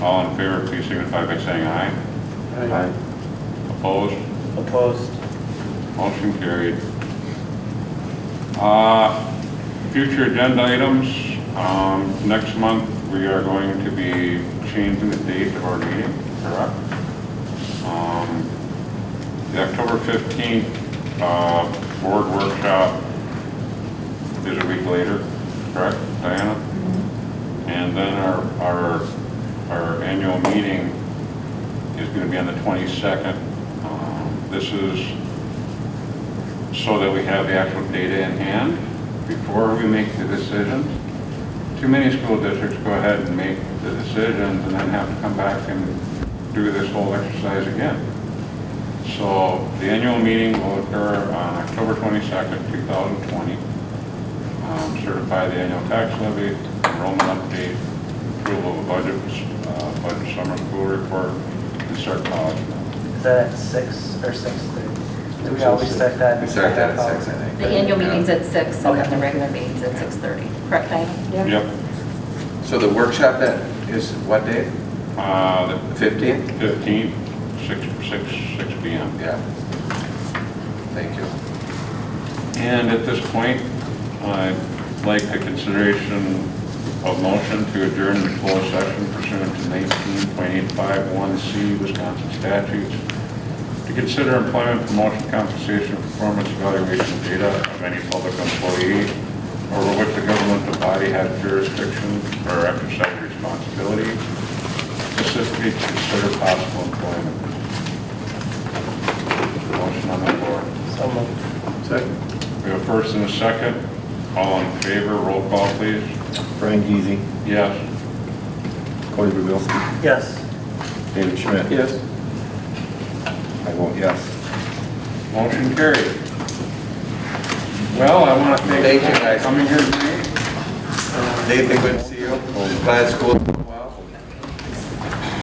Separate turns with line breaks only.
All in favor, please signify by saying aye.
Aye.
Opposed?
Opposed?
Motion carried. Uh, Future agenda items, um, next month, we are going to be changing the date of our meeting, correct? Um, The October 15th uh, board workshop is a week later, correct, Diana? And then our, our, our annual meeting is going to be on the 22nd. Um, This is so that we have the actual data in hand before we make the decisions. Too many school districts go ahead and make the decisions and then have to come back and do this whole exercise again. So the annual meeting will occur on October 22nd, 2020. Um, Certify the annual tax levy, enrollment update, approval of budget, uh, budget summer school report, and start policy.
Is that at six or six thirty? Do we always set that?
We start that at six, I think.
The annual meeting's at six, and then
Okay.
the regular meeting's at 6:30, correct, Diane?
Yep.
So the workshop that is what date?
Uh, the
The fifteenth?
15, 6, 6, 6 PM.
Yeah. Thank you.
And at this point, I'd like the consideration of motion to adjourn the closed session pursuant to 19.851C Wisconsin statutes to consider employment, promotion, compensation, performance evaluation data of any public employee over which the governmental body has jurisdiction or exercise responsibility, specifically to consider possible employment. Motion on the floor.
So moved.
Second.
We have a first and a second. All in favor, roll call, please.
Brian Geezy,
Yes.
Cody Bubilski,
Yes.
David Schmidt.
Yes.
I vote yes.
Motion carried. Well, I want to thank
Thank you,
you for
guys.
coming here tonight.
Nathan, good to see you. Glad school. went well.